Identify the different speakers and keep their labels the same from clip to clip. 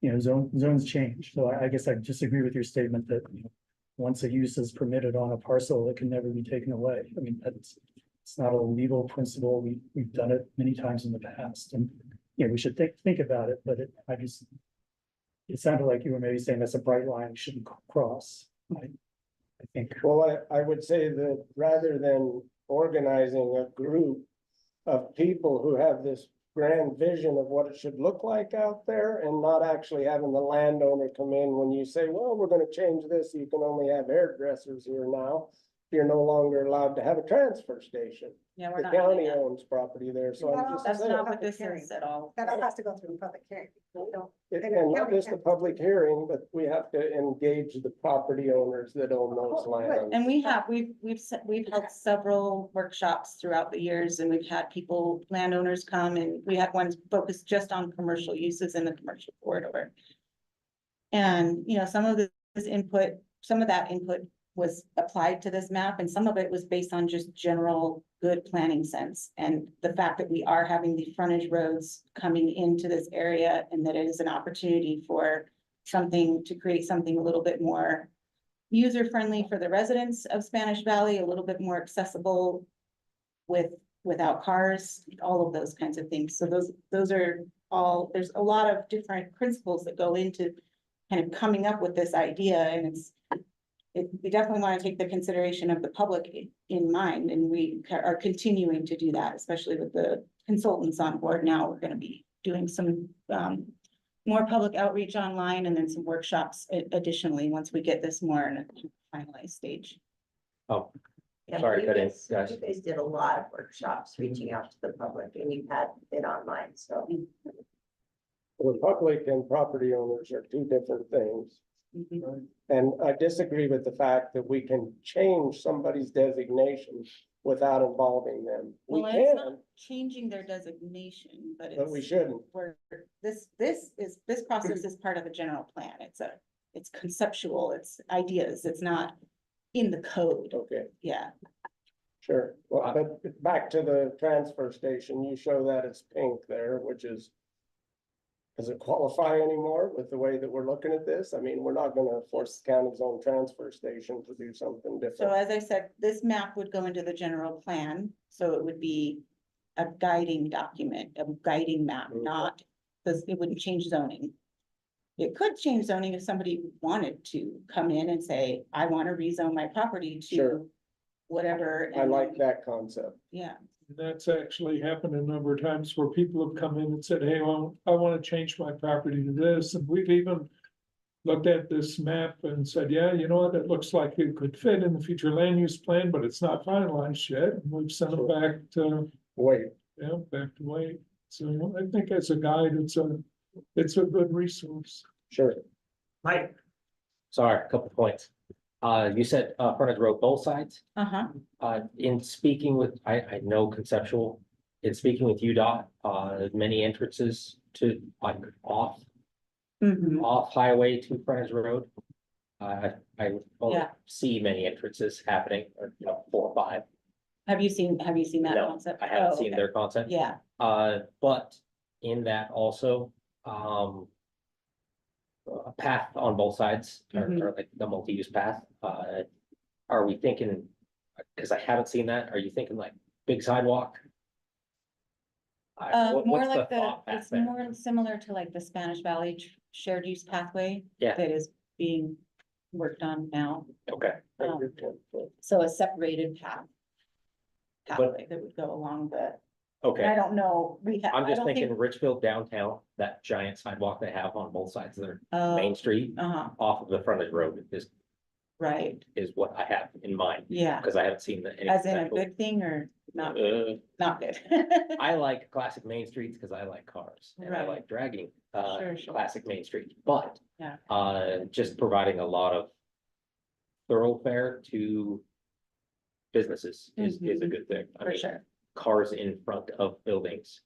Speaker 1: you know, zone, zones change. So I, I guess I disagree with your statement that, you know, once a use is permitted on a parcel, it can never be taken away. I mean, that's, it's not a legal principle. We, we've done it many times in the past and, you know, we should think, think about it, but it, I just, it sounded like you were maybe saying that's a bright line we shouldn't c- cross. I, I think,
Speaker 2: Well, I, I would say that rather than organizing a group of people who have this grand vision of what it should look like out there and not actually having the landowner come in when you say, well, we're gonna change this, you can only have hairdressers here now. You're no longer allowed to have a transfer station.
Speaker 3: Yeah,
Speaker 2: The
Speaker 3: we're not doing
Speaker 2: county
Speaker 3: that.
Speaker 2: owns property there, so I'm just
Speaker 3: That's
Speaker 2: saying.
Speaker 3: not what this is at all.
Speaker 4: That all has to go through a public hearing. We don't-
Speaker 2: It-
Speaker 4: And
Speaker 2: And not
Speaker 4: county
Speaker 2: just a
Speaker 4: can-
Speaker 2: public hearing, but we have to engage the property owners that own those
Speaker 4: Oh, right.
Speaker 2: lands.
Speaker 3: And we have, we've, we've, se- we've held several workshops throughout the years and we've had people, landowners come and we had ones focused just on commercial uses in the commercial corridor. And, you know, some of this input, some of that input was applied to this map and some of it was based on just general good planning sense. And the fact that we are having the frontage roads coming into this area and that it is an opportunity for something to create something a little bit more user friendly for the residents of Spanish Valley, a little bit more accessible with, without cars, all of those kinds of things. So those, those are all, there's a lot of different principles that go into kind of coming up with this idea and it's it, we definitely want to take the consideration of the public i- in mind and we ca- are continuing to do that, especially with the consultants on board now. We're going to be doing some um more public outreach online and then some workshops a- additionally, once we get this more in a finalized stage.
Speaker 5: Oh,
Speaker 6: Yeah,
Speaker 5: Sorry,
Speaker 6: you
Speaker 5: cut in,
Speaker 6: guys-
Speaker 5: guys.
Speaker 6: You guys did a lot of workshops reaching out to the public and you had it online, so.
Speaker 2: The public and property owners are two different things.
Speaker 3: Mhm.
Speaker 2: And I disagree with the fact that we can change somebody's designation without involving them. We
Speaker 3: Well, it's not
Speaker 2: can,
Speaker 3: changing their designation, but
Speaker 2: but we
Speaker 3: it's,
Speaker 2: shouldn't.
Speaker 3: we're, this, this is, this process is part of a general plan. It's a, it's conceptual, it's ideas, it's not in the code,
Speaker 2: Okay,
Speaker 3: yeah.
Speaker 2: sure. Well, but back to the transfer station, you show that it's pink there, which is. Does it qualify anymore with the way that we're looking at this? I mean, we're not gonna force the county's own transfer station to do something
Speaker 3: So
Speaker 2: different.
Speaker 3: as I said, this map would go into the general plan, so it would be a guiding document, a guiding map,
Speaker 2: Okay.
Speaker 3: not, because it wouldn't change zoning. It could change zoning if somebody wanted to come in and say, I want to rezone my property
Speaker 2: Sure.
Speaker 3: to whatever.
Speaker 2: I
Speaker 3: and
Speaker 2: like
Speaker 3: then-
Speaker 2: that concept.
Speaker 3: Yeah,
Speaker 7: That's actually happened a number of times where people have come in and said, hey, well, I want to change my property to this, and we've even. Looked at this map and said, yeah, you know what, it looks like it could fit in the future land use plan, but it's not finalized yet, and we've sent it back to,
Speaker 2: Wait,
Speaker 7: yeah, back to Wade. So I think as a guide, it's a, it's a good resource.
Speaker 2: sure.
Speaker 6: Mike,
Speaker 5: sorry, a couple points. Uh, you said, uh, frontage road both sides,
Speaker 3: uh-huh.
Speaker 5: uh, in speaking with, I, I know conceptual. In speaking with UDOT, uh, many entrances to, like, off,
Speaker 3: Mhm.
Speaker 5: off highway to frontage road. Uh, I, I only
Speaker 3: Yeah.
Speaker 5: see many entrances happening, or, you know, four or five,
Speaker 3: Have you seen, have you seen that
Speaker 5: No,
Speaker 3: concept?
Speaker 5: I
Speaker 3: Oh,
Speaker 5: haven't seen
Speaker 3: okay.
Speaker 5: their content.
Speaker 3: Yeah,
Speaker 5: Uh, but in that also, um. A path on both sides, or,
Speaker 3: Mm-hmm.
Speaker 5: or like the multi-use path, uh, are we thinking? Cause I haven't seen that, are you thinking like big sidewalk? I-
Speaker 3: uh,
Speaker 5: what-
Speaker 3: more
Speaker 5: what's
Speaker 3: like the,
Speaker 5: thought back
Speaker 3: it's
Speaker 5: there?
Speaker 3: more similar to like the Spanish Valley tr- shared use pathway.
Speaker 5: Yeah.
Speaker 3: That is being worked on now.
Speaker 5: Okay,
Speaker 3: Um, So a separated path. Pathway that would go along the, and I
Speaker 5: okay,
Speaker 3: don't know, we have.
Speaker 5: I'm
Speaker 3: I
Speaker 5: just
Speaker 3: don't
Speaker 5: thinking
Speaker 3: think-
Speaker 5: Richfield downtown, that giant sidewalk they have on both sides of their
Speaker 3: Oh,
Speaker 5: main street.
Speaker 3: uh-huh,
Speaker 5: Off of the frontage road is,
Speaker 3: right,
Speaker 5: is what I have in mind,
Speaker 3: yeah,
Speaker 5: cause I haven't seen the. any
Speaker 3: as in a
Speaker 5: conceptual-
Speaker 3: good thing or not,
Speaker 5: Uh,
Speaker 3: not good.
Speaker 5: I like classic main streets because I like cars and I
Speaker 3: Right.
Speaker 5: like dragging uh
Speaker 3: Sure, sure.
Speaker 5: classic main streets, but.
Speaker 3: Yeah.
Speaker 5: Uh, just providing a lot of thoroughfare to businesses is is a
Speaker 3: Mhm.
Speaker 5: good thing. I
Speaker 3: For
Speaker 5: mean,
Speaker 3: sure.
Speaker 5: cars in front of buildings,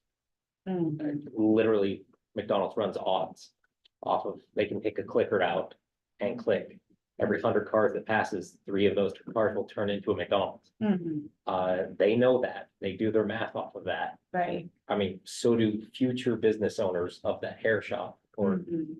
Speaker 5: uh,
Speaker 3: Mm,
Speaker 5: literally McDonald's runs odds off of, they can take a clicker out and
Speaker 3: Mm-hmm.
Speaker 5: click. Every hundred cars that passes, three of those cars will turn into a McDonald's.
Speaker 3: mhm,
Speaker 5: Uh, they know that, they do their math off of that.
Speaker 3: Right.
Speaker 5: I mean, so do future business owners of that hair shop or
Speaker 3: mhm,